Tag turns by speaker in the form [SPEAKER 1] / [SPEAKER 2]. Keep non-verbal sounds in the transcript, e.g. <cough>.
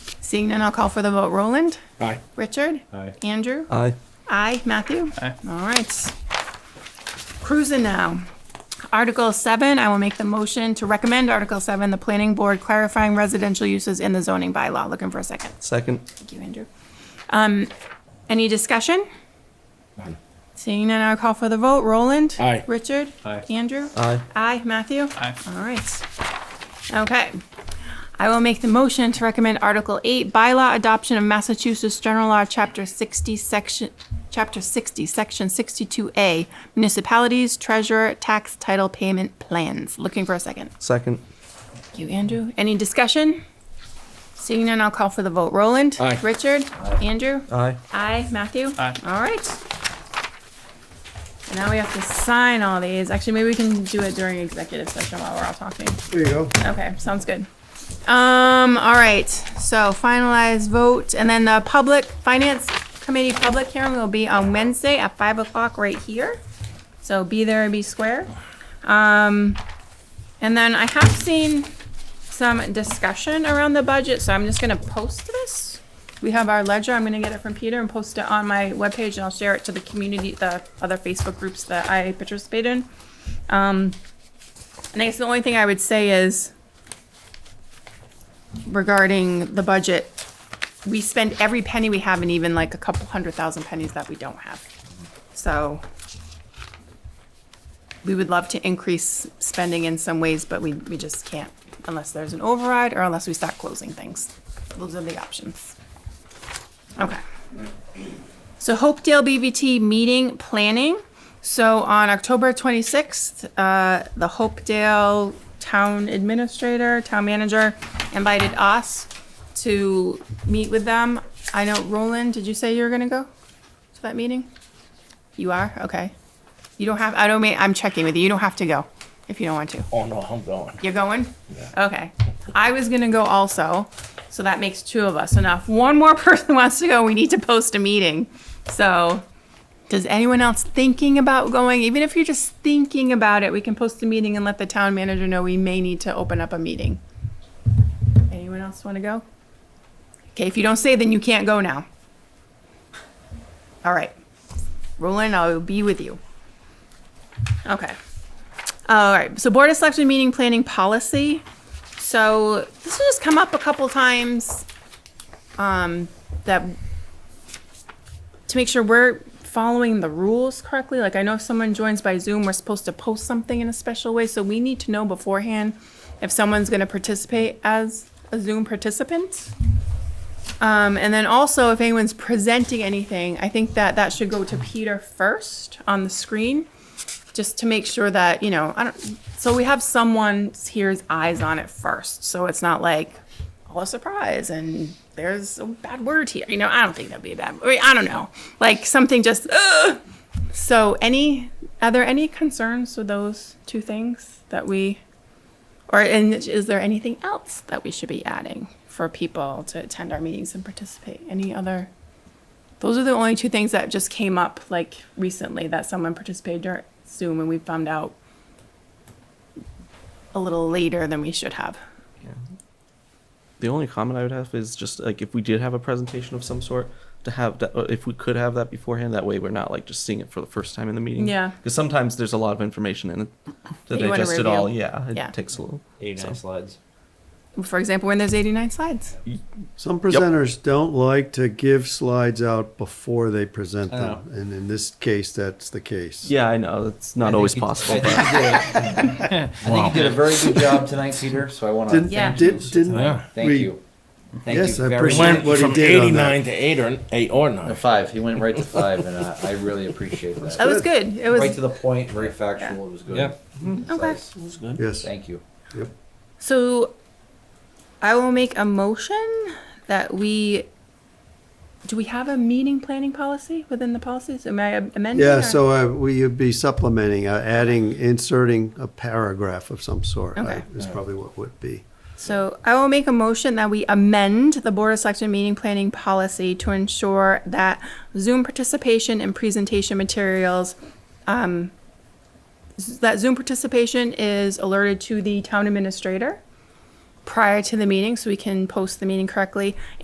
[SPEAKER 1] Seeing none, I'll call for the vote. Roland?
[SPEAKER 2] Aye.
[SPEAKER 1] Richard?
[SPEAKER 2] Aye.
[SPEAKER 1] Andrew?
[SPEAKER 3] Aye.
[SPEAKER 1] Aye. Matthew?
[SPEAKER 2] Aye.
[SPEAKER 1] All right. Cruising now. Article seven, I will make the motion to recommend Article seven, the planning board clarifying residential uses in the zoning bylaw. Looking for a second.
[SPEAKER 3] Second.
[SPEAKER 1] Thank you, Andrew. Um, any discussion?
[SPEAKER 2] None.
[SPEAKER 1] Seeing none, I'll call for the vote. Roland?
[SPEAKER 2] Aye.
[SPEAKER 1] Richard?
[SPEAKER 2] Aye.
[SPEAKER 1] Andrew?
[SPEAKER 3] Aye.
[SPEAKER 1] Aye. Matthew?
[SPEAKER 2] Aye.
[SPEAKER 1] All right. Okay. I will make the motion to recommend Article 8, bylaw adoption of Massachusetts General Law, Chapter 60, Section, Chapter 60, Section 62A, municipalities, treasurer, tax title payment plans. Looking for a second.
[SPEAKER 3] Second.
[SPEAKER 1] Thank you, Andrew. Any discussion? Seeing none, I'll call for the vote. Roland?
[SPEAKER 2] Aye.
[SPEAKER 1] Richard? Andrew?
[SPEAKER 3] Aye.
[SPEAKER 1] Aye. Matthew?
[SPEAKER 2] Aye.
[SPEAKER 1] All right. And Now we have to sign all these. Actually, maybe we can do it during executive session while we're all talking.
[SPEAKER 4] There you go.
[SPEAKER 1] Okay, sounds good. Um, all right, so finalized vote, and then the public, finance committee public hearing will be on Wednesday at five o'clock right here. So be there and be square. Um, and then I have seen some discussion around the budget, so I'm just gonna post this. We have our ledger, I'm gonna get it from Peter and post it on my webpage, and I'll share it to the community, the other Facebook groups that I participate in. Um, and I guess the only thing I would say is regarding the budget, we spend every penny we have and even like a couple hundred thousand pennies that we don't have. So we would love to increase spending in some ways, but we, we just can't unless there's an override or unless we start closing things. Those are the options. Okay. So Hopedale BVT meeting planning. So on October 26th, uh, the Hopedale Town Administrator, Town Manager invited us to meet with them. I know, Roland, did you say you were gonna go to that meeting? You are? Okay. You don't have, I don't mean, I'm checking with you. You don't have to go if you don't want to.
[SPEAKER 2] Oh, no, I'm going.
[SPEAKER 1] You're going? Okay. I was gonna go also, so that makes two of us. Enough. One more <laughs> person wants to go, we need to post a meeting. So, does anyone else thinking about going? Even if you're just thinking about it, we can post a meeting and let the town manager know we may need to open up a meeting. Anyone else wanna go? Okay, if you don't say, then you can't go now. All right. Roland, I'll be with you. Okay. All right, so Board of Selectmen meeting planning policy. So this has just come up a couple times, um, that, to make sure we're following the rules correctly. Like, I know if someone joins by Zoom, we're supposed to post something in a special way, so we need to know beforehand if someone's gonna participate as a Zoom participant. Um, and then also, if anyone's presenting anything, I think that that should go to Peter first on the screen just to make sure that, you know, I don't, so we have someone here's eyes on it first. So it's not like, oh, a surprise and there's a bad word here. You know, I don't think that'd be a bad, I, mean, I don't know. Like something just, Ugh! so any, are there any concerns with those two things that we, or and is there anything else that we should be adding for people to attend our meetings and participate? Any other? Those are the only two things that just came up like recently that someone participated during Zoom and we found out a little later than we should have.
[SPEAKER 3] The only comment I would have is just like if we did have a presentation of some sort to have that, uh, if we could have that beforehand, that way we're not like just seeing it for the first time in the meeting.
[SPEAKER 1] Yeah.
[SPEAKER 3] Because sometimes there's a lot of information and to
[SPEAKER 1] That you wanna
[SPEAKER 3] digest it all,
[SPEAKER 1] review.
[SPEAKER 3] yeah, it
[SPEAKER 1] Yeah.
[SPEAKER 3] takes a little.
[SPEAKER 2] Eighty-nine slides.
[SPEAKER 1] For example, when there's 89 slides.
[SPEAKER 4] Some presenters don't like to give slides out before they present
[SPEAKER 2] I
[SPEAKER 4] them. And in this case, that's the case.
[SPEAKER 3] Yeah, I know it's
[SPEAKER 5] I
[SPEAKER 3] not
[SPEAKER 5] think
[SPEAKER 3] always
[SPEAKER 5] you-
[SPEAKER 3] possible.
[SPEAKER 5] I <laughs> think you did a- I think you did a very good job tonight, Peter, so I want to
[SPEAKER 4] Didn't,
[SPEAKER 1] Yeah.
[SPEAKER 5] thank you.
[SPEAKER 4] did, didn't
[SPEAKER 2] Yeah.
[SPEAKER 5] Thank
[SPEAKER 4] we-
[SPEAKER 5] you. Thank
[SPEAKER 4] Yes,
[SPEAKER 5] you
[SPEAKER 4] I
[SPEAKER 5] very
[SPEAKER 4] appreciate
[SPEAKER 5] much.
[SPEAKER 4] what he
[SPEAKER 2] From
[SPEAKER 4] did on
[SPEAKER 2] eighty-nine to eight or, eight or
[SPEAKER 5] A
[SPEAKER 2] nine.
[SPEAKER 5] Five, he went right to five, and uh, I really appreciate
[SPEAKER 1] <laughs>
[SPEAKER 5] that.
[SPEAKER 1] That was good. It
[SPEAKER 5] Right
[SPEAKER 1] was, Mm-hmm.
[SPEAKER 5] to the point, very factual, it was good.
[SPEAKER 2] Yeah.
[SPEAKER 5] Concise.
[SPEAKER 4] Yes.
[SPEAKER 5] Thank you.
[SPEAKER 1] so I will make a motion that we, do we have a meeting planning policy within the policies? Am I amending?
[SPEAKER 4] Yeah,
[SPEAKER 1] or-
[SPEAKER 4] so uh, we would be supplementing, uh, adding, inserting a paragraph of some sort.
[SPEAKER 1] Okay.
[SPEAKER 4] right, Is probably what would be.
[SPEAKER 1] So I will make a motion that we amend the Board of Selectmen meeting planning policy to ensure that Zoom participation and presentation materials, um, s- that Zoom participation is alerted to the town administrator prior to the meeting, so we can post the meeting correctly,